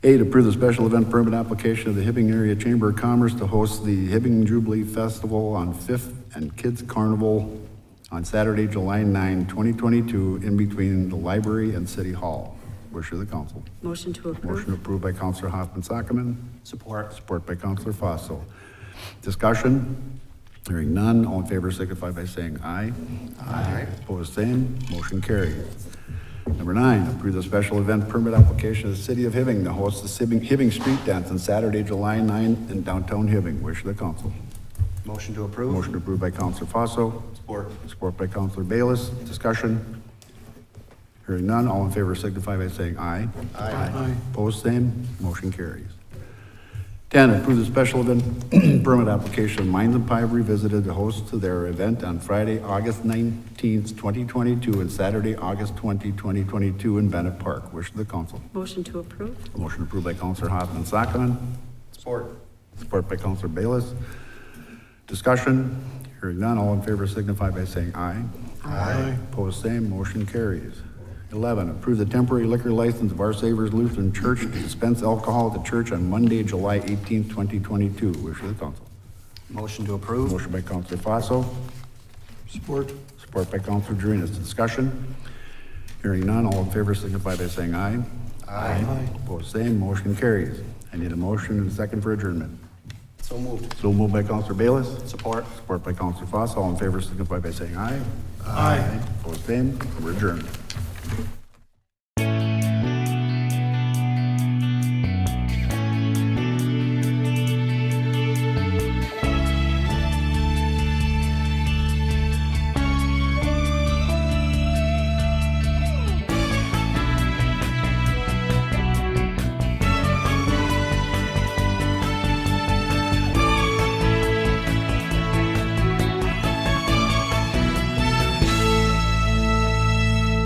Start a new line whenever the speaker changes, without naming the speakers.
Eight, approve the special event permit application of the Hibbing Area Chamber of Commerce to host the Hibbing Jubilee Festival on Fifth and Kids Carnival on Saturday, July 9, 2022, in between the library and City Hall. Wish of the council.
Motion to
Motion
approve?
approved by Counselor Hoffman Sockman,
Support.
support by Counselor Fossil. Discussion? Hearing none, all in favor signify by saying aye. Aye. Opposed, same, motion carried. Number nine, approve the special event permit application of the City of Hibbing to host the Hibbing, Hibbing Street Dance on Saturday, July 9 in downtown Hibbing. Wish of the council.
Motion to approve.
Motion approved by Counselor Fossil.
Support.
Support by Counselor Bayless. Discussion? Hearing none, all in favor signify by saying aye. Aye. Opposed, same. Motion carries. Ten, approve the special event permit application of Minds and Pie Revisited to host to their event on Friday, August nineteenth, twenty twenty-two, and Saturday, August 20, 2022, in Bennett Park. Wish of the council.
Motion to approve?
Motion approved by Counselor Hoffman Sockman.
Support.
Support by Counselor Bayless. Discussion, hearing none, all in favor signify by saying aye. Aye. Opposed, same, motion carries. Eleven, approve the temporary liquor license of Our Savers Lutheran Church to dispense alcohol at the church on Monday, July eighteenth, twenty twenty-two. Wish of the council.
Motion to approve.
Motion by Counselor Fossil,
Support.
support by Counselor Drenas. Discussion, hearing none, all in favor signify by saying aye. Aye. Opposed, same, motion carries. I need a motion and a second for adjournment.
So moved.
So moved by Counselor Bayless.
Support.
Support by Counselor Foss. All in favor signify by saying aye. Aye. Opposed, same. We're adjourned.